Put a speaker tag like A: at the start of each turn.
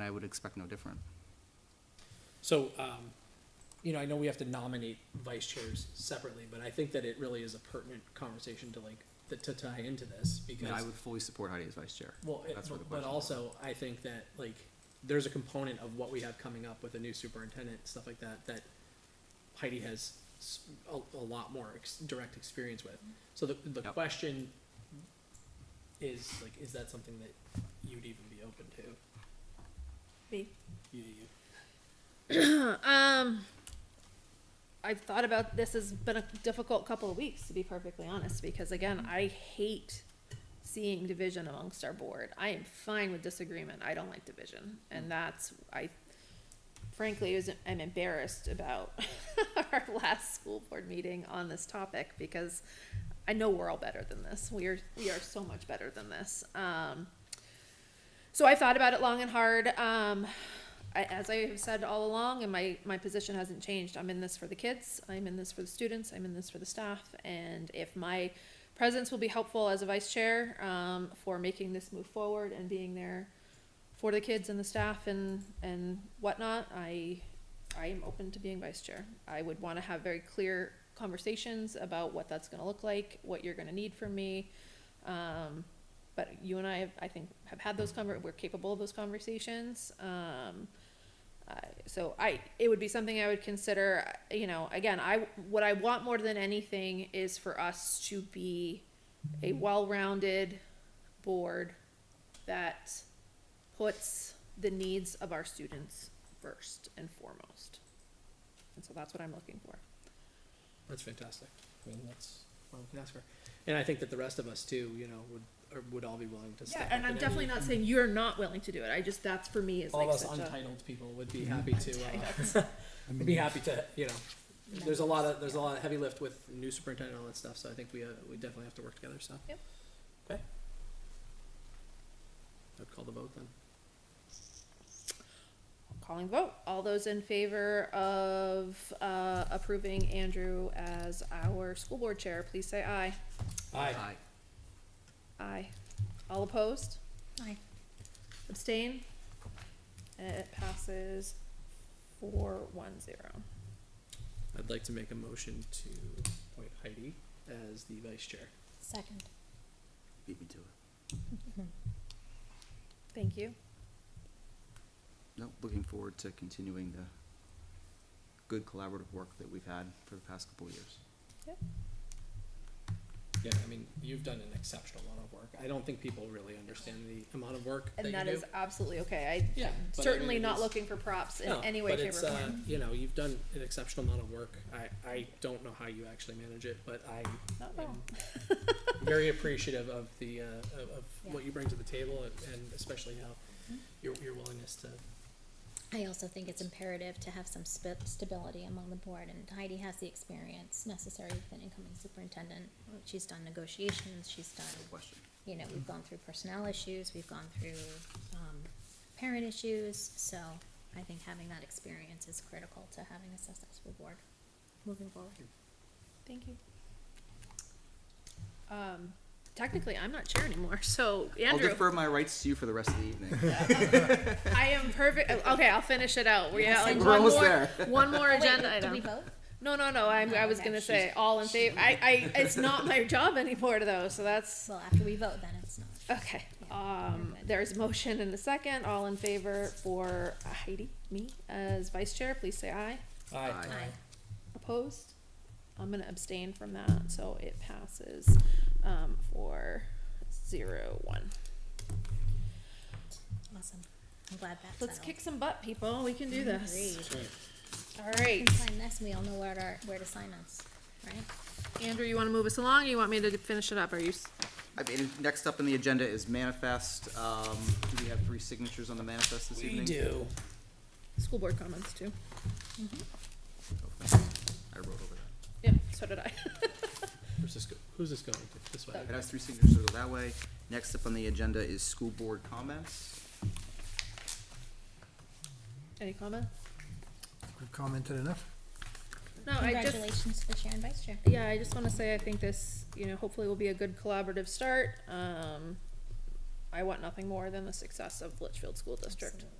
A: I would expect no different.
B: So, um, you know, I know we have to nominate vice chairs separately, but I think that it really is a pertinent conversation to like, th- to tie into this
A: And I
B: because,
A: would fully support Heidi as vice chair.
B: well, it-
A: That's where the
B: but
A: question
B: also I think that like, there's a component of what we have coming up with a new superintendent, stuff like that, that Heidi has s- a, a lot more ex- direct experience with. So the, the
A: Yep.
B: question is like, is that something that you'd even be open to?
C: Me.
B: You, you,
C: Um, I've thought about this has been a difficult couple of weeks to be perfectly honest because again, I hate seeing division amongst our board. I am fine with disagreement. I don't like division, and that's I frankly was I'm embarrassed about our last school board meeting on this topic because I know we're all better than this. We are we are so much better than this. Um, so I thought about it long and hard. Um, I, as I have said all along, and my, my position hasn't changed, I'm in this for the kids, I'm in this for the students, I'm in this for the staff, and if my presence will be helpful as a vice chair, um, for making this move forward and being there for the kids and the staff and, and whatnot, I, I am open to being vice chair. I would wanna have very clear conversations about what that's gonna look like, what you're gonna need from me. Um, but you and I, have- I think, have had those conver, we're capable of those conversations, um. I- so I, it would be something I would consider, uh, you know, again, I, what I want more than anything is for us to be a well-rounded board that puts the needs of our students first and foremost. And so that's what I'm looking for.
B: That's fantastic. I mean, that's all we can ask for. And I think that the rest of us too, you know, would or would all be willing to step
C: Yeah,
B: up.
C: and I'm
B: in
C: definitely
B: any-
C: not saying you're not willing to do it, I just, that's for me is
B: All
C: like
B: us
C: such a.
B: untitled people would be happy to, uh, would be happy to, you know, there's a lot of, there's a lot of heavy lift with new superintendent and all that stuff, so I think we, uh, we definitely have to work together, so.
C: Yep.
B: Okay. I'd call the vote then.
C: Calling vote, all those in favor of, uh, approving Andrew as our school board chair, please say aye.
B: Aye.
A: Aye.
C: Aye. All opposed?
D: Aye.
C: Abstain? It passes four one zero.
B: I'd like to make a motion to appoint Heidi as the vice chair.
D: Second.
A: Beat me to it.
C: Thank you.
A: No, looking forward to continuing the good collaborative work that we've had for the past couple of years.
B: Yeah, I mean, you've done an exceptional amount of work. I don't think people really understand the amount of work that you
C: And
B: do.
C: that is absolutely okay. I
B: Yeah. but I
C: certainly
B: mean, it
C: not
B: is-
C: looking for props in
B: No,
C: any way,
B: but
C: shape or
B: it's, uh,
C: form.
B: You know, you've done an exceptional amount of work. I, I don't know how you actually manage it, but I
C: Not at all.
B: am very appreciative of the, uh, of, of what you bring to the table and- and especially how your, your willingness to,
D: I also think it's imperative to have some sp- stability among the board, and Heidi has the experience necessary with an incoming superintendent. She's done negotiations, she's
A: No
D: done,
A: question.
D: you know, we've gone through personnel issues, we've gone through, um, parent issues, so I think having that experience is critical to having a successful board moving forward.
C: Thank you. Um, technically, I'm not chair anymore, so
A: I'll
C: Andrew,
A: defer my rights to you for the rest of the evening.
C: I am perfect, okay, I'll finish it out. We have like
A: We're
C: one
A: almost
C: more,
A: there.
C: one more
D: Wait,
C: agenda
D: did
C: item.
D: we vote?
C: No, no, no. I'm, I was
D: Okay.
C: gonna say all in favor. I, I, it's not my job anymore though. So that's
D: Well, after we vote, then it's not.
C: okay. Um, there's a motion and a second. All in favor for Heidi, me as vice chair. Please say aye.
A: Aye.
D: Aye.
C: Opposed? I'm gonna abstain from that. So it passes um, for zero one.
D: Awesome. I'm glad that's
C: Let's
D: settled.
C: kick some butt, people. We can do this.
D: Agreed.
C: All right,
D: Sign this, and we all know where to, where to sign us, right?
C: Andrew, you want to move us along? Or you want me to finish it up? Are you? s-
A: I mean, next up on the agenda is manifest. Um, do we have three signatures on the manifest this evening?
C: School board comments too.
A: Okay. I wrote over that.
C: Yep. So did I.
B: Where's this go, who's this going to? This way?
A: It has three signatures, so that way. Next up on the agenda is school board comments.
C: Any comments?
E: We've commented enough.
C: No, I just.
D: Congratulations to the chair and vice chair.
C: yeah, I just wanna say, I think this, you know, hopefully will be a good collaborative start, um, I want nothing more than the success of Litchfield School District,
D: Absolutely.